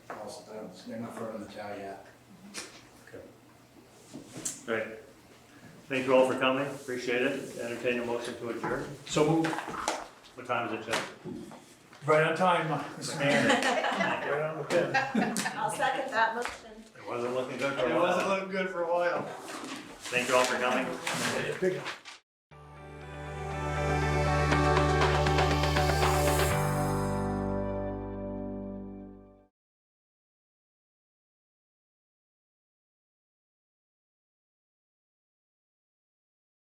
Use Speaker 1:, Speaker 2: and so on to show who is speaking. Speaker 1: else, I don't- they're not firm in the town yet.
Speaker 2: All right. Thank you all for coming, appreciate it. Entertain a motion to adjourn.
Speaker 3: So moved.
Speaker 2: What time is it, Jeff?
Speaker 3: Right on time, Mr. Mayor.
Speaker 2: Right on the pin.
Speaker 4: I'll second that motion.
Speaker 2: It wasn't looking good for a while.
Speaker 3: looking good for a while.
Speaker 2: Thank you all for coming.
Speaker 3: Big